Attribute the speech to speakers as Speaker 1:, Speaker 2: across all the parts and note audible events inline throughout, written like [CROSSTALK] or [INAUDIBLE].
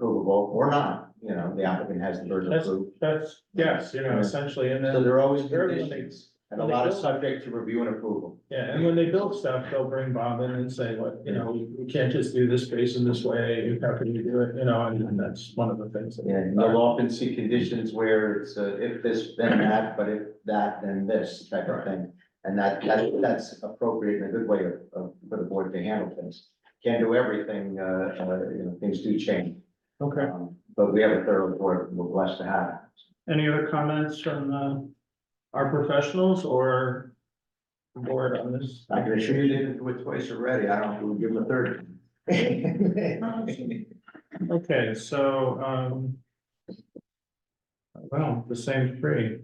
Speaker 1: approvable or not, you know, the applicant has the burden of
Speaker 2: That's-
Speaker 1: proof.
Speaker 2: That's, yes, you know,
Speaker 1: Yeah.
Speaker 2: essentially, and
Speaker 1: So
Speaker 2: then,
Speaker 1: there are always
Speaker 2: there are these
Speaker 1: conditions
Speaker 2: things.
Speaker 1: and a lot of subject to review and approval.
Speaker 2: yeah, and when they build stuff, they'll bring Bob in and say, what, you know, we we can't just do this space in this way, how can you do it, you know, and and that's one of the things. that-
Speaker 1: And you'll often see conditions where it's uh, if this, then that, but if that, then this type of thing. And that, that, that's appropriate and a good way of, of, for the board to handle things. Can't do everything, uh, uh, you know, things do change.
Speaker 2: Okay,
Speaker 1: Um, But we have a thorough board, we're blessed to have.
Speaker 2: any other comments from, uh, our professionals or the board on this?
Speaker 1: I can assure you they didn't do it twice already, I don't, we'll give them a third.
Speaker 2: Okay, so, um. Well, the same three,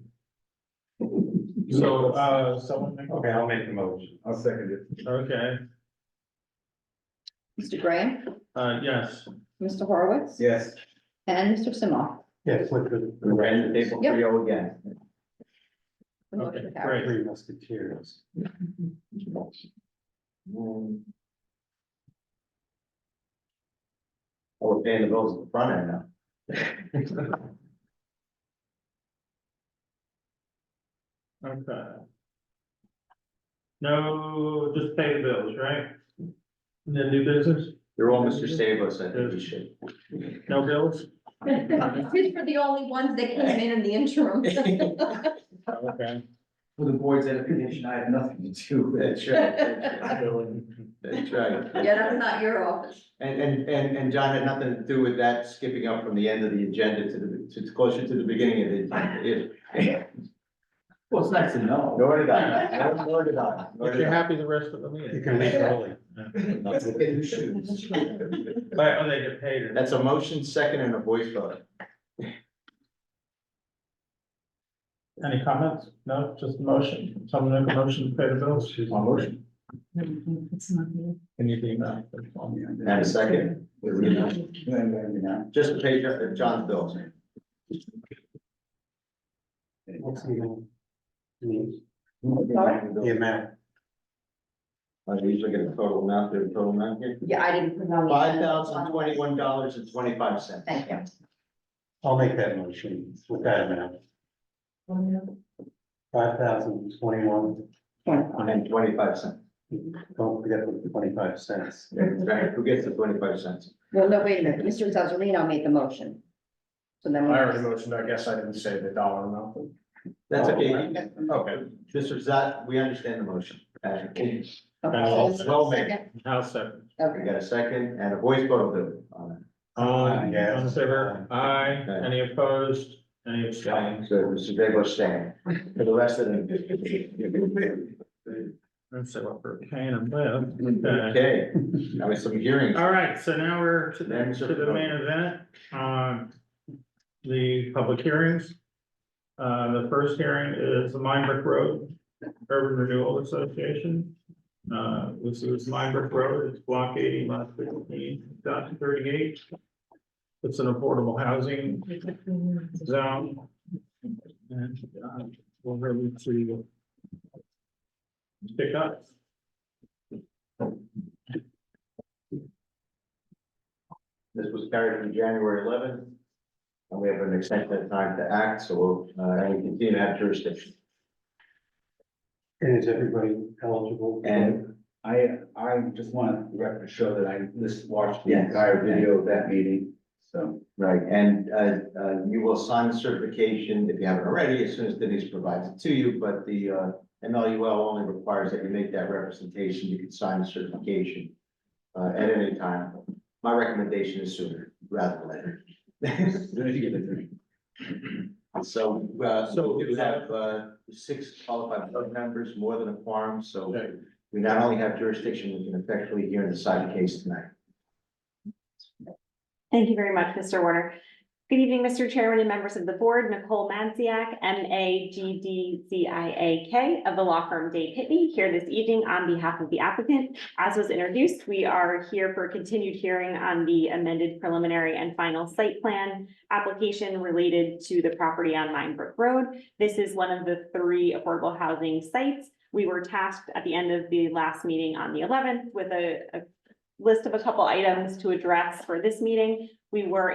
Speaker 2: so, uh, someone make,
Speaker 3: Okay, I'll make the motion. I'll second
Speaker 2: okay,
Speaker 4: Mr. Graham,
Speaker 2: uh, yes.
Speaker 4: Mr. Horowitz.
Speaker 3: Yes.
Speaker 4: And Mr. Simoff.
Speaker 3: Yes, with the.
Speaker 1: We ran the table for you again.
Speaker 4: The motion
Speaker 2: Okay,
Speaker 4: carries.
Speaker 3: Three musketeers.
Speaker 1: Um, Oh, we're paying the bills at the front end now.
Speaker 2: Okay. No, just pay the bills, right? And then new business,
Speaker 1: They're all Mr. Sabos, I think we should.
Speaker 2: no bills?
Speaker 4: [LAUGHS] These were the only ones that came in in
Speaker 1: [LAUGHS]
Speaker 4: the interim.
Speaker 2: Okay.
Speaker 1: For the board's edification, I have nothing to do with it. That's right, that's right. That's right.
Speaker 4: Yeah, that's not your office.
Speaker 1: And, and, and, and John had nothing to do with that skipping up from the end of the agenda to the, to closer to the beginning of the agenda. either.
Speaker 3: Well, it's nice to know.
Speaker 1: Nor did I, nor- nor did I. nor
Speaker 2: If
Speaker 1: did
Speaker 2: you're
Speaker 1: I.
Speaker 2: happy the rest of the meeting.
Speaker 3: You can leave early.
Speaker 1: Let's look at who shoots.
Speaker 2: But, oh, they get paid. or-
Speaker 1: That's a motion, second, and a voice vote.
Speaker 2: Any comments? No, just a motion, someone make a motion to pay the bills?
Speaker 1: motion.
Speaker 2: Can you do that?
Speaker 1: And a second. Just a page up of John's bills.
Speaker 3: What's the amount? The
Speaker 1: Sorry?
Speaker 3: amount.
Speaker 1: I usually get a total amount, there's a total amount here.
Speaker 4: Yeah, I didn't. put it on the
Speaker 1: Five
Speaker 4: agenda.
Speaker 1: thousand twenty-one dollars and twenty-five cents.
Speaker 4: Thank you.
Speaker 3: I'll make that motion with that amount. Five thousand twenty-one,
Speaker 1: And twenty-five cents.
Speaker 3: don't forget the twenty-five cents.
Speaker 1: Right, who gets the twenty-five cents?
Speaker 4: Well, no, wait a minute. Mr. Zazarino made the motion. So then. we-
Speaker 3: motioned, I guess I didn't say the dollar amount. Oh,
Speaker 1: That's okay.
Speaker 4: Okay.
Speaker 1: Okay, Mr. Zat, we understand the motion. Uh, we
Speaker 2: Well,
Speaker 1: well made.
Speaker 4: Second.
Speaker 2: House second.
Speaker 4: Okay.
Speaker 1: got a second and a voice vote of the, uh, on
Speaker 2: Aye.
Speaker 3: yes.
Speaker 2: On favor? Aye.
Speaker 1: Aye.
Speaker 2: Any opposed? Any abstained?
Speaker 1: it. So Mr. Debo staying for the rest of the.
Speaker 2: Let's see what we're paying them with.
Speaker 1: Okay,
Speaker 2: Okay.
Speaker 1: now it's some hearings.
Speaker 2: All right, so now we're to the,
Speaker 1: Then to
Speaker 2: to
Speaker 1: the-
Speaker 2: the main event, um, the public hearings. Uh, the first hearing is the Minebrook Road Urban Renewal Association. Uh, this is Minebrook Road, it's block eighty, lot fifteen, dot thirty-eight. It's an affordable housing zone. And, uh, we'll really see. what- Pick up.
Speaker 1: This was carried from January eleventh. And we have an extended time to act, so we'll, uh, and we continue to have jurisdiction.
Speaker 3: And is everybody eligible?
Speaker 5: And I, I just want the record to show that I just watched the
Speaker 1: Yes.
Speaker 5: entire video of that meeting, so.
Speaker 1: Right, and uh, uh, you will sign the certification if you haven't already, as soon as Denise provides it to you, but the uh, MLUL only requires that you make that representation, you can sign the certification uh, at any time. My recommendation is sooner rather than later. So uh,
Speaker 2: So-
Speaker 1: we do have uh, six qualified board members, more than a quorum, so we not only have jurisdiction, we can effectively hear and decide the case tonight.
Speaker 6: Thank you very much, Mr. Warner. Good evening, Mr. Chairman and members of the board. Nicole Manciak, M A G D C I A K of the law firm Dave Pitney, here this evening on behalf of the applicant. As was introduced, we are here for a continued hearing on the amended preliminary and final site plan application related to the property on Minebrook Road. This is one of the three affordable housing sites. We were tasked at the end of the last meeting on the eleventh with a a list of a couple items to address for this meeting. We were